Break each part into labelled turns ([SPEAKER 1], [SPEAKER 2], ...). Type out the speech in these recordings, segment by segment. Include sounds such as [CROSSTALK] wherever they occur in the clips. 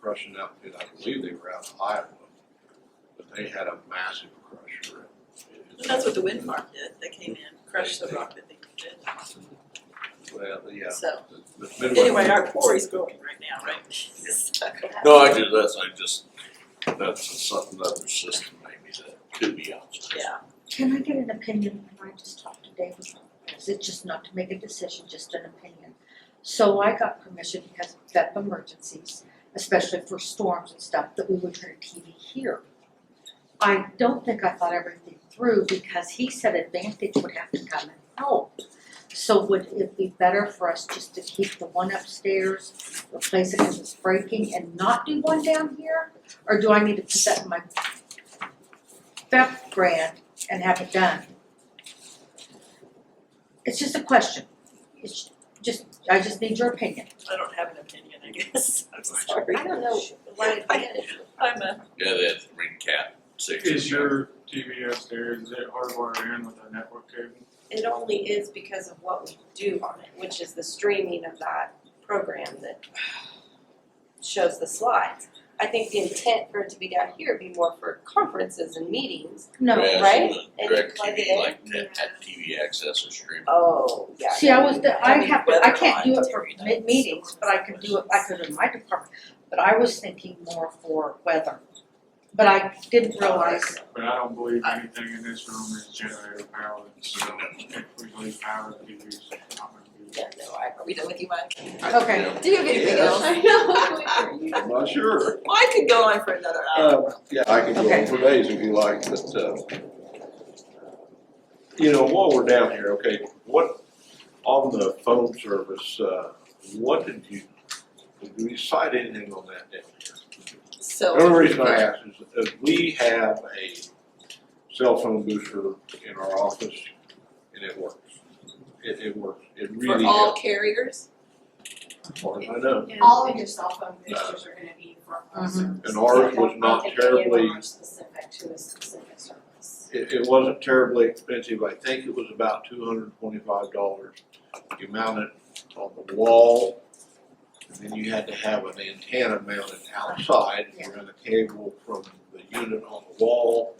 [SPEAKER 1] crushing out, and I believe they were out of Iowa, but they had a massive crusher.
[SPEAKER 2] But that's what the wind farm did, they came in, crushed the rock that they did,
[SPEAKER 1] Well, yeah.
[SPEAKER 2] so.
[SPEAKER 1] the- the Midwest-
[SPEAKER 2] Anyway, our quarry's growing right now, right? [LAUGHS] So,
[SPEAKER 1] No, I do, that's, I just, that's something that the system maybe that could be out.
[SPEAKER 2] Yeah,
[SPEAKER 3] Can I get an opinion when I just talked to David? Is it just not to make a decision, just an opinion? So I got permission because of emergencies, especially for storms and stuff, that we would turn TV here. I don't think I thought everything through because he said Advantage would have to come and help. So would it be better for us just to keep the one upstairs, replace it because it's breaking and not do one down here? Or do I need to put that in my FEP grant and have it done. It's just a question. It's just, I just need your opinion.
[SPEAKER 2] I don't have an opinion, I guess, [LAUGHS] I'm sorry.
[SPEAKER 4] I don't know why advantage.
[SPEAKER 2] I'm a,
[SPEAKER 5] Yeah, they had to ring cat six or
[SPEAKER 6] Is
[SPEAKER 5] seven.
[SPEAKER 6] your TV upstairs, is it hardwired in with a network cable?
[SPEAKER 4] It only is because of what we do on it, which is the streaming of that program that shows the slides. I think the intent for it to be down here would be more for conferences and meetings.
[SPEAKER 3] No,
[SPEAKER 5] Yeah, so
[SPEAKER 4] right?
[SPEAKER 5] the
[SPEAKER 4] And you
[SPEAKER 5] direct
[SPEAKER 4] plug
[SPEAKER 5] TV,
[SPEAKER 4] it in?
[SPEAKER 5] like that, that TV access or stream.
[SPEAKER 4] Oh, yeah.
[SPEAKER 3] see, I was, the- I
[SPEAKER 2] That'd be
[SPEAKER 3] have, to- I
[SPEAKER 2] better
[SPEAKER 3] can't do
[SPEAKER 2] on
[SPEAKER 3] it for
[SPEAKER 2] Tuesday nights.
[SPEAKER 3] mid-meetings, but I could do it, I could in my department. But I was thinking more for weather. But I didn't realize,
[SPEAKER 6] But I don't believe anything in this room is generator powered, so if we leave power, the TV's not gonna be.
[SPEAKER 2] yeah, no, I, are we done with you, Mike?
[SPEAKER 3] okay.
[SPEAKER 5] Yeah.
[SPEAKER 4] Do you have
[SPEAKER 1] anything else?
[SPEAKER 4] I know.
[SPEAKER 1] I'm not sure.
[SPEAKER 2] Well, I could go on for another hour.
[SPEAKER 1] Uh, yeah, I can go
[SPEAKER 3] Okay.
[SPEAKER 1] on for days if you like, but, uh, you know, while we're down here, okay, what, on the phone service, uh, what did you, did we cite anything on that down here?
[SPEAKER 2] So.
[SPEAKER 1] The only reason I ask is, is uh, we have a cell phone booster in our office and it works. It, it works, it really
[SPEAKER 2] For all
[SPEAKER 1] helps,
[SPEAKER 2] carriers?
[SPEAKER 1] as far as I know.
[SPEAKER 7] All of your cell phone boosters are gonna be for all
[SPEAKER 3] Mhm.
[SPEAKER 2] Mm-hmm.
[SPEAKER 7] services.
[SPEAKER 1] And ours was
[SPEAKER 7] They don't
[SPEAKER 1] not
[SPEAKER 7] think any of them
[SPEAKER 1] terribly-
[SPEAKER 7] are Specific to a specific service.
[SPEAKER 1] It, it wasn't terribly expensive, I think it was about two hundred and twenty-five dollars. You mount it on the wall, and then you had to have an antenna mounted outside, you run a cable from the unit on the wall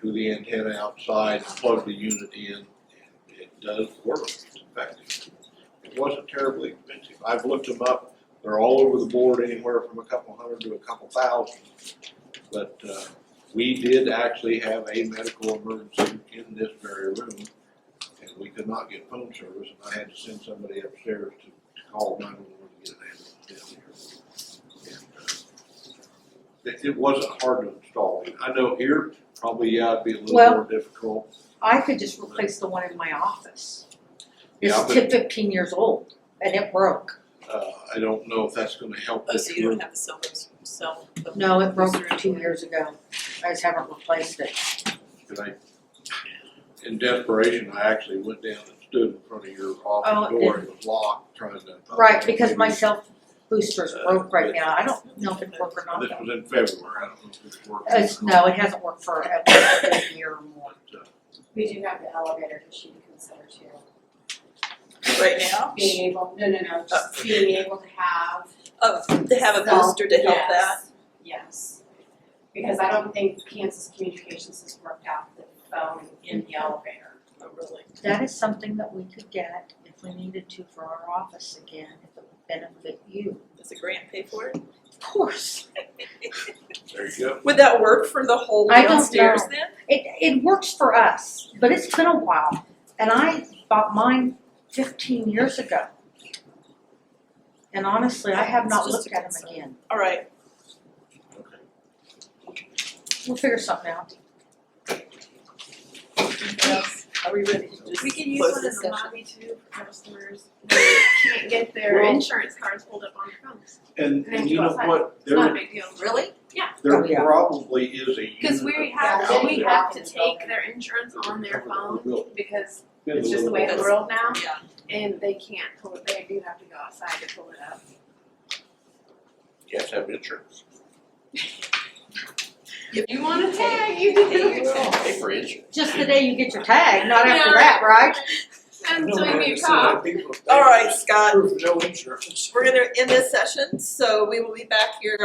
[SPEAKER 1] to the antenna outside, plug the unit in, and it does work, it's effective. It wasn't terribly expensive, I've looked them up, they're all over the board, anywhere from a couple hundred to a couple thousand. But, uh, we did actually have a medical emergency in this very room, and we could not get phone service, and I had to send somebody upstairs to to call nine one one to get an ambulance down here. And, uh, It, it wasn't hard to install, I know here, probably, yeah, it'd be a little
[SPEAKER 3] Well-
[SPEAKER 1] more difficult.
[SPEAKER 3] I could just replace the one in my office. It's
[SPEAKER 1] Yeah, but,
[SPEAKER 3] ti- fifteen years old and it broke.
[SPEAKER 1] uh, I don't know if that's gonna help
[SPEAKER 2] Oh,
[SPEAKER 1] this
[SPEAKER 2] so you
[SPEAKER 1] room.
[SPEAKER 2] don't have a cell phone, cell. phone
[SPEAKER 3] No, it broke
[SPEAKER 2] booster
[SPEAKER 3] two
[SPEAKER 2] anymore.
[SPEAKER 3] years ago. I just haven't replaced it.
[SPEAKER 1] And I, in desperation, I actually went down and stood in front of your
[SPEAKER 3] Oh,
[SPEAKER 1] office
[SPEAKER 3] it
[SPEAKER 1] door, it was locked, trying to.
[SPEAKER 3] Right, because Uh, my
[SPEAKER 1] Maybe-
[SPEAKER 3] cell boosters broke right now, I don't know if it worked or not.
[SPEAKER 1] This was in February, I don't know if it's working.
[SPEAKER 3] Oh, It's, no, it hasn't worked for at least a year or more.
[SPEAKER 1] uh,
[SPEAKER 7] We do have the elevator issue to consider too.
[SPEAKER 2] Right now?
[SPEAKER 7] Being able, no, no, no, just being able to have.
[SPEAKER 2] Oh, to have Oh, a
[SPEAKER 7] cell-
[SPEAKER 2] booster to help that?
[SPEAKER 7] yes, Yes, because I don't think Kansas Communications has worked out the phone in the elevator.
[SPEAKER 2] Oh, really?
[SPEAKER 3] That is something that we could get if we needed to for our office again, if it would benefit you.
[SPEAKER 2] Does the grant pay for it?
[SPEAKER 3] Of course,
[SPEAKER 1] There you go.
[SPEAKER 2] Would that work for the whole
[SPEAKER 3] I don't
[SPEAKER 2] downstairs
[SPEAKER 3] know.
[SPEAKER 2] then?
[SPEAKER 3] it, it works for us, but it's been a while, and I bought mine fifteen years ago. And honestly, I have not
[SPEAKER 2] It's just
[SPEAKER 3] looked
[SPEAKER 2] a
[SPEAKER 3] at them
[SPEAKER 2] concern.
[SPEAKER 3] again,
[SPEAKER 2] All right,
[SPEAKER 1] Okay.
[SPEAKER 3] we'll figure something out. [LAUGHS]
[SPEAKER 2] are we ready to just
[SPEAKER 8] We can use
[SPEAKER 2] close
[SPEAKER 8] one in
[SPEAKER 2] this
[SPEAKER 8] the
[SPEAKER 2] session?
[SPEAKER 8] lobby too for customers who [LAUGHS] can't get their
[SPEAKER 1] Well-
[SPEAKER 8] insurance cards pulled up on their phones.
[SPEAKER 1] And,
[SPEAKER 7] Thank
[SPEAKER 1] and
[SPEAKER 7] you.
[SPEAKER 1] you know what,
[SPEAKER 8] It's not a
[SPEAKER 1] there,
[SPEAKER 8] big deal.
[SPEAKER 2] Really?
[SPEAKER 3] Oh,
[SPEAKER 1] there
[SPEAKER 3] yeah.
[SPEAKER 1] probably is a unit.
[SPEAKER 8] Cause we
[SPEAKER 7] Yeah,
[SPEAKER 8] have,
[SPEAKER 7] so
[SPEAKER 8] we
[SPEAKER 7] we
[SPEAKER 8] have
[SPEAKER 7] have
[SPEAKER 8] to
[SPEAKER 7] to
[SPEAKER 8] take
[SPEAKER 7] build
[SPEAKER 8] their insurance on their phone because
[SPEAKER 1] Been a
[SPEAKER 8] it's just the way
[SPEAKER 1] little bit.
[SPEAKER 8] the world now
[SPEAKER 2] Yeah.
[SPEAKER 8] and they can't pull it, they do have to go outside to pull it up.
[SPEAKER 1] You have to have insurance.
[SPEAKER 8] If you wanna tag, you do.
[SPEAKER 5] Pay for insurance.
[SPEAKER 3] Just the day you get your tag, not after
[SPEAKER 8] Yeah.
[SPEAKER 3] that, right?
[SPEAKER 8] And
[SPEAKER 1] No,
[SPEAKER 8] so
[SPEAKER 1] I
[SPEAKER 8] you
[SPEAKER 1] understand that
[SPEAKER 8] talk.
[SPEAKER 1] people-
[SPEAKER 2] All right, Scott,
[SPEAKER 1] Proof of no insurance.
[SPEAKER 2] we're gonna end this session, so we will be back here